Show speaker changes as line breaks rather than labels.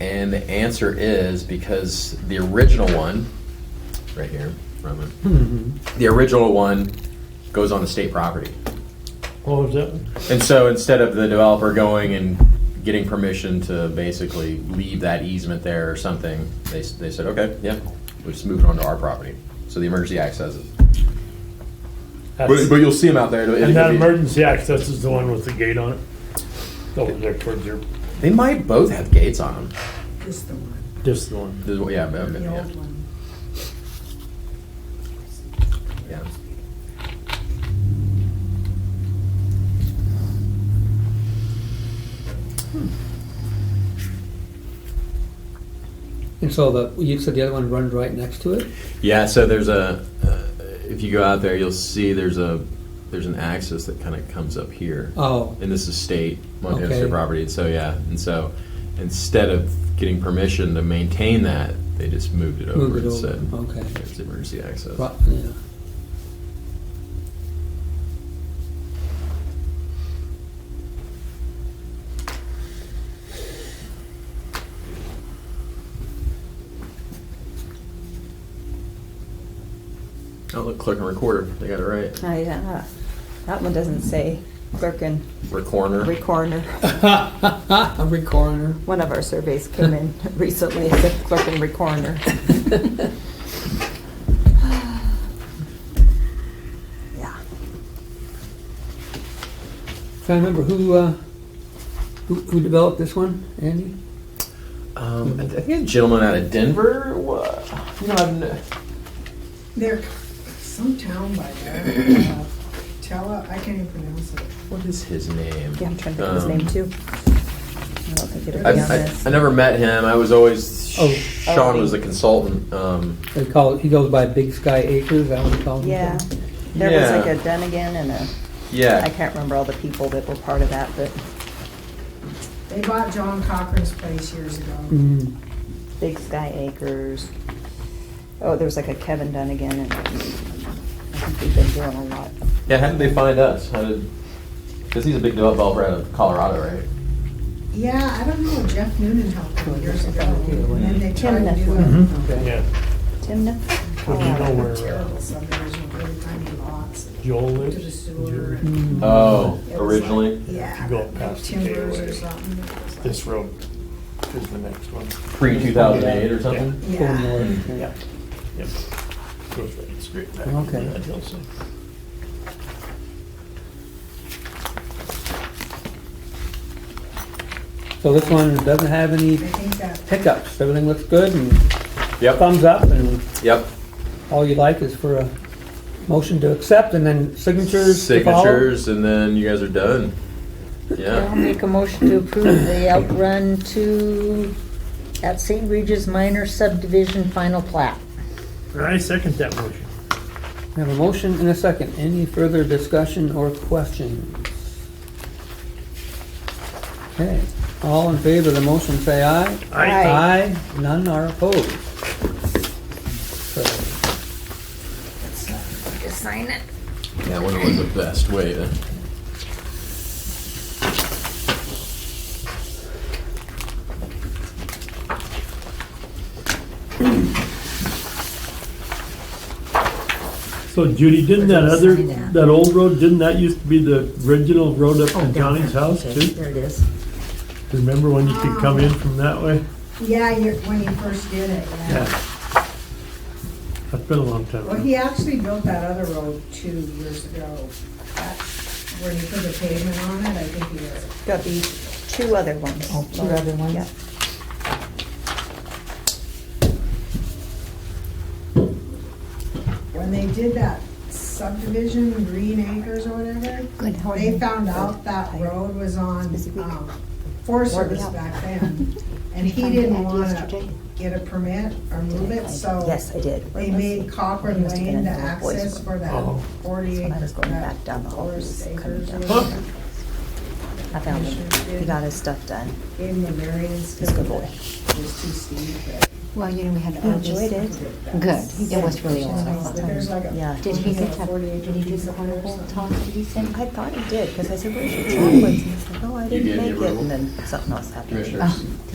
And the answer is because the original one, right here, Roman, the original one goes on the state property.
What was that?
And so instead of the developer going and getting permission to basically leave that easement there or something, they, s- they said, okay, yeah, we'll just move it onto our property. So the Emergency Act says it. But,
That's-
but you'll see them out there. It'll- it'll
And that
be-
emergency access is the one with the gate on it? Over there towards your,
They might both have gates on them.
This the one,
this is the one.
This is what- yeah, okay,
the
yeah,
old one.
yeah.
And so the, you said the other one runs right next to it?
Yeah, so there's a, uh, if you go out there, you'll see there's a, there's an axis that kind of comes up here.
Oh,
And this is state, Montana
Okay.
state property, and so, yeah, and so instead of getting permission to maintain that, they just moved it over
moved it
and
over, Oh.
said,
okay.
there's emergency access.
Right, yeah.
Oh, look, clerk and recorder, they got it right.
I, uh, that one doesn't say clerk and
Recorder.
recorder.
I'm recorder.
One of our surveys came in recently, it said clerk and recorder. Yeah.
Trying to remember who, uh, who, who developed this one, Andy?
Um, I I think a gentleman out of Denver, wa- you know, I've n-
There, some town by there, uh, Tella, I can't even pronounce it.
what is his name?
Yeah, I'm trying to think of his
Um,
name too. I don't think it'll be
I,
on
Yeah.
I,
this.
I never met him. I was always
Oh.
Sean was the consultant. Um,
They call it, he goes by Big Sky Acres, is that what he calls it?
Yeah, there was like
Yeah.
a Dunnigan and a, I
yeah,
can't remember all the people that were part of that, but
They bought John Cochran's place years ago.
Mm,
Big Sky Acres. Oh, there was like a Kevin Dunnigan and I think we've been doing a lot.
yeah. How did they find us? How did? Because he's a big developer out of Colorado, right?
Yeah, I don't know, Jeff Noonan helped them years ago, and then they tried to do
Mhm.
a
okay.
Mm-hmm. Yeah,
Timna?
Well, you know where- uh,
terrible subdivision, really tiny lots,
Joel
to
lives.
the sewer.
Jerry.
and
Oh,
it was like-
originally
Yeah.
You go past the
Timbers or
KOA.
something. it was like-
This road is the next one.
pre two thousand eight or something.
Go
Yeah.
north, yeah.
Yep. Goes right straight back.
Okay.
into that hillside.
So this one doesn't have any
I think that
hiccups, everything looks good and
Yep.
thumbs up and
Yep.
all you like is for a motion to accept and then signatures to follow.
Signatures, and then you guys are done.
I'll
Yeah.
make a motion to approve the outrun to, at St. Regis Minor Subdivision Final Plat.
I second that motion.
We have a motion and a second. Any further discussion or questions? Okay, all in favor of the motion, say aye.
Aye.
Aye, none are opposed. So,
Just sign it.
Yeah. I wonder what the best uh, way to.
So Judy, didn't that other,
Sign that.
that old road, didn't that used to be the original road up
Oh,
to Johnny's house
Okay,
too?
There it is.
Remember when you could come in from that way?
Yeah, you when you first did it, yeah.
That's been a long time.
Well, he actually built that other road two years ago. That- Where he put the pavement on it, I think he did.
Got these two other ones.
Oh, two other ones.
Yeah.
When they did that subdivision, Green Acres or whatever,
Good, how are
they
you?
found out that road was on
Busy week.
um, Forest
Warm me
Service
up.
back then. And he
Found the
didn't
ad
want
yesterday.
to get a permit or move it, so
Yes, I did.
they made Cochran
Must have been
Lane the
in the boys'
access
room.
for that
Oh.
forty
That's when I
acre,
was going back down the
that
hall,
Forest
he was coming
Acres. or
down.
whatever.
I found him. He got his stuff done.
Gave him a variance
He's a good
because
boy.
it was too steep, but.
Well, you know, we had
He
all
enjoyed
this.
it.
Good, it was really
But There's
awesome.
like a.
Yeah.
Did he get to,
48
did he do
piece
the
of wood or
carnival
something.
talk, did he say?
I thought he did, because I said, where's your chocolates? And he's like, oh, I
You
didn't
did,
make
you
it.
were-
And then something else happened.
Commissioners.